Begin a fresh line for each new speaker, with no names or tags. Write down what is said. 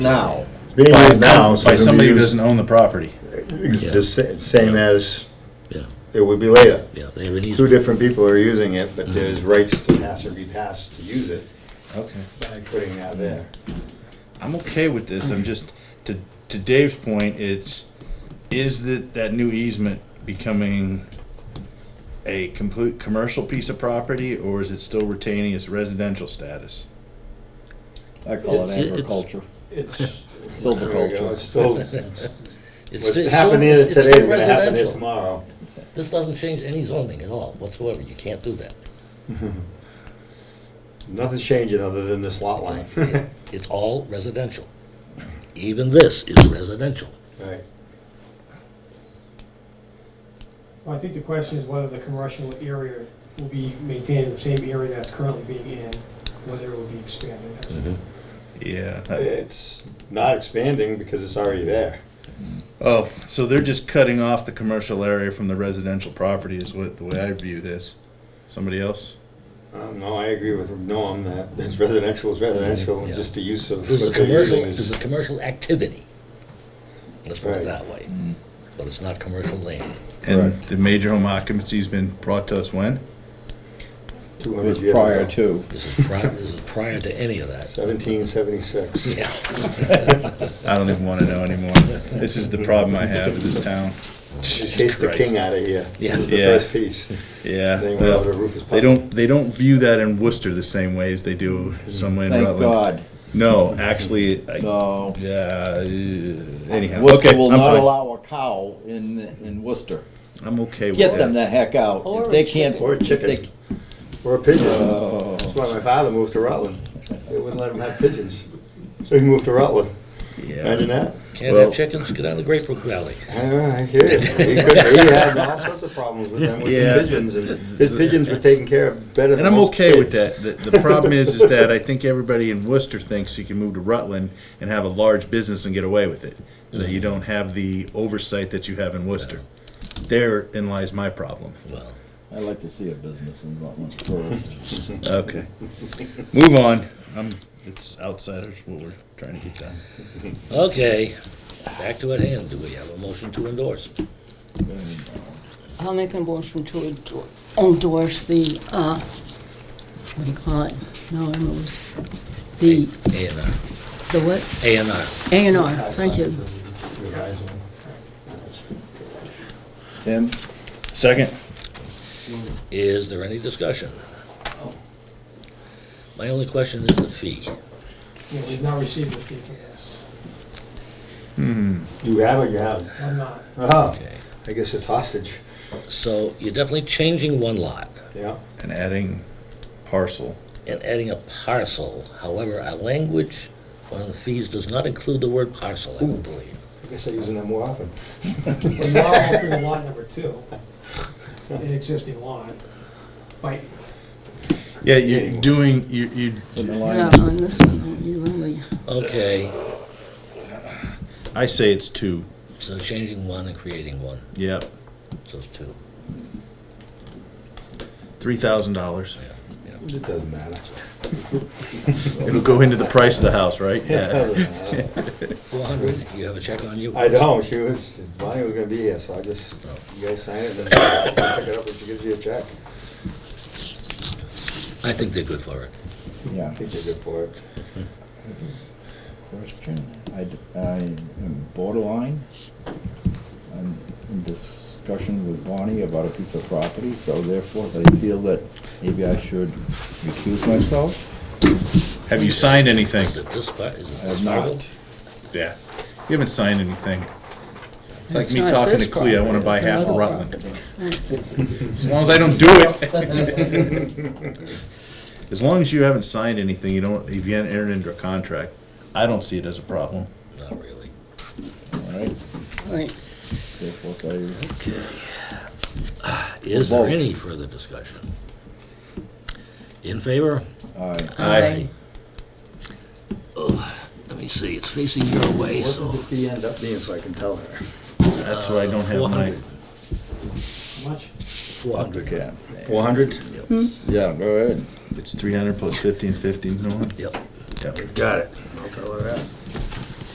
now.
It's being
By-
used now, so
By
it'll
somebody
be
who
used,
doesn't own the property.
it's the sa- same as
Yeah,
it would be later.
yeah, they have an
Two
easement.
different people are using it,
Mm-hmm.
but there's rights to pass or be passed to use it
Okay.
by putting that there.
I'm okay with this, I'm just, to, to Dave's point, it's, is that, that new easement becoming a complete commercial piece of property, or is it still retaining its residential status?
I call
It's-
it
it's-
agriculture.
It's.
Silviculture.
It's still,
It's
what's
still-
happening
it's still-
today
it's
is gonna happen here
residential.
tomorrow.
This doesn't change any zoning at all whatsoever, you can't do that.
Nothing's changing other than this lot line.
It- It's all residential. Even this is residential.
Right.
Well, I think the question is whether the commercial area will be maintaining the same area that's currently being in, whether it will be expanded. That's-
Yeah. that-
It's not expanding because it's already there.
Oh, so they're just cutting off the commercial area from the residential property is what, the way I view this. Somebody else?
Um, no, I agree with Norm that it's residential is residential,
Yeah.
and just the use of
This is a
what they're
commercial,
using
this is a
is.
commercial activity. Let's put it
Right.
that way. But it's not commercial land.
And
Correct.
the major home occupancy's been brought to us when?
It was prior to.
This is prior, this is prior to any of that.
Seventeen seventy-six.
Yeah.
I don't even wanna know anymore. This is the problem I have with this town.
Just chase the
Christ.
king out of here.
Yeah.
This was the
Yeah.
first piece.
Yeah.
They went
well,
over to Rufus
They
Putnam.
don't they don't view that in Worcester the same way as they do somewhere in
Thank
Rutland.
God.
No, actually, I,
No.
yeah. uh, Anyhow,
Worcester
okay,
will
I'm
not
fine.
allow a cow in, in Worcester.
I'm okay with
Get them
that.
the heck out. If they can't.
Or a chicken.
if they-
Or a pigeon.
Oh.
That's why my father moved to Rutland. They wouldn't let him have pigeons. So he moved to Rutland. Imagine
Yeah.
that.
Can't
Well-
have chickens, get down to Great Brook Valley.
Ah, I hear you. He could- he had all sorts of problems with them, with
Yeah.
the pigeons, and his pigeons were taken care of better than
And I'm
most
okay with
kids.
that. The, the problem is, is that I think everybody in Worcester thinks you can move to Rutland and have a large business and get away with it. That you don't have the oversight that you have in Worcester. Therein lies my problem.
Well,
i like to see a business in Rutland first.
Okay. Move on. I'm, it's outsiders what we're trying to get done.
okay, back to at hand. Do we have a motion to endorse?
I'll make a motion to endor- endorse the, uh, what do you call it? No, I know it's, the,
A and R,
the what?
A and R.
A and R, thank you.
Tim,
Second.
Is there any discussion? My only question is the fee.
You know, we've not received a fee for this.
You have it, you have it.
I'm not.
Ah,
Okay.
I guess it's hostage.
So you're definitely changing one lot
Yeah.
And adding parcel.
and adding a parcel. However, our language on the fees does not include the word parcel, I don't believe.
I guess I'm using that more often.
But you are altering lot number two, an existing lot, by,
Yeah, you're doing, you, you,
in the
Yeah,
line.
on this one, you only,
Okay,
I say it's two.
so changing one and creating one,
Yep.
so it's two.
Three thousand dollars.
It doesn't matter.
It'll go into the price of the house, right?
It
Yeah.
doesn't matter.
Four hundred, you have a check on you?
I don't, she was, Bonnie was gonna be here, so I just, you guys sign it, then I'll pick it up, and she gives you a check.
I think they're good for it.
Yeah.
I think you're good for it.
Question. I, d- I am borderline. I'm in discussion with Bonnie about a piece of property, so therefore I feel that maybe I should recuse myself.
Have you signed anything?
Is it this part, is it
I have
this part?
not.
Yeah. You haven't signed anything. It's like
It's
me
not
talking
this
to Clea, I wanna
property,
buy
it's
half of
another
Rutland. As long as I don't do it. As long as you haven't signed anything, you don't, if you haven't entered into a contract, I don't see it as a problem.
Not really.
All right,
right,
therefore I
Is there
Vote.
any further discussion? In favor?
Aye.
Aye.
Let me see, it's facing your way,
What
so.
did the fee end up being, so I can tell her?
That's why I don't have my,
400.
how much?
Four hundred.
Okay.
Four hundred?
Yeah, go ahead.
it's three hundred plus fifteen fifty, no one?
Yep.
Yep.
Got it. I'll tell her that.